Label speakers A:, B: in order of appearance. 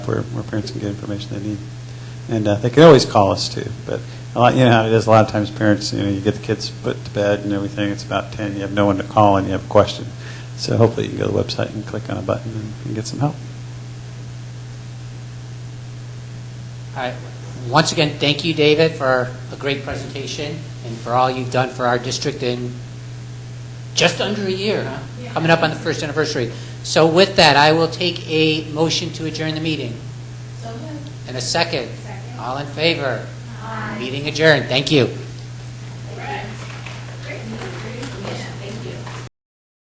A: where, where parents can get information they need. And uh, they can always call us too, but a lot, you know how it is, a lot of times parents, you know, you get the kids put to bed and everything, it's about 10, you have no one to call and you have a question. So hopefully you can go to the website and click on a button and, and get some help.
B: All right. Once again, thank you, David, for a great presentation and for all you've done for our district in just under a year, huh? Coming up on the first anniversary. So with that, I will take a motion to adjourn the meeting.
C: So moved.
B: And a second.
C: Second.
B: All in favor? Meeting adjourned. Thank you.